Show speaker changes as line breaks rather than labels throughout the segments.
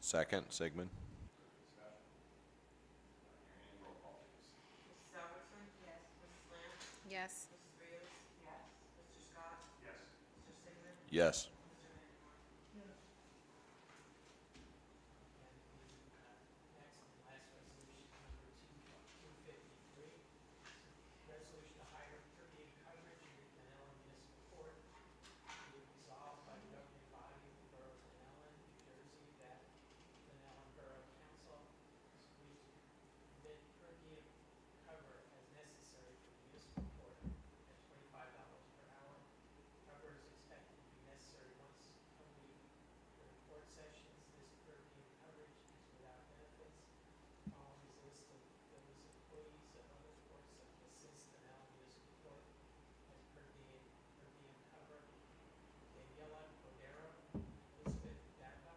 Second, Sigmund.
Mrs. Albertson? Yes. Mrs. Lance?
Yes.
Mrs. Rios? Yes. Mr. Scott? Yes. Mr. Sigmund?
Yes.
Mr. Vandermark?
Next, and last resolution, number two, two fifty-three. Resolution to hire per diem coverage in Pinellas Municipal Court. Be it resolved by the governing body of the Borough of Pinellas, New Jersey, that Pinellas Borough Council is pleased to permit per diem cover as necessary for the municipal court at twenty-five dollars per hour. Cover is expected to be necessary once a week during court sessions, this per diem coverage is without benefits. Following is listed those employees of other courts such as Cincinnati Municipal Court as per diem, per diem cover. Daniela Cordero, Elizabeth Dagba,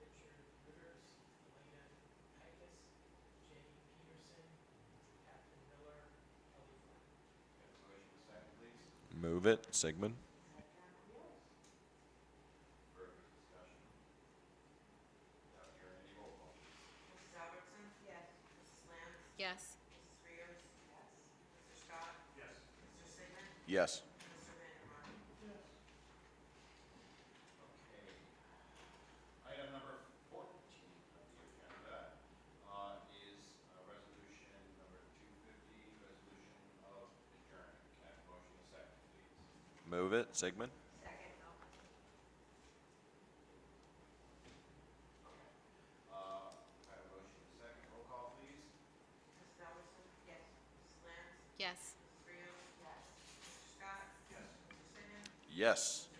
Richard Reuters, Elena Pecas, Jamie Peterson, Catherine Miller, Kelly Flynn.
Move it, Sigmund.
Mrs. Albertson? Yes. Mrs. Lance?
Yes.
Mrs. Rios? Yes. Mr. Scott? Yes. Mr. Sigmund?
Yes.
Mr. Vandermark?
Okay. Item number fourteen of the agenda uh, is uh, resolution number two fifty, resolution of adjournment. Can I have a motion and a second, please?
Move it, Sigmund.
Second.
Okay. Uh, I have a motion and a second. Roll call, please.
Mrs. Albertson? Yes. Mrs. Lance?
Yes.
Mrs. Rios? Yes. Mr. Scott? Yes. Mr. Sigmund?
Yes.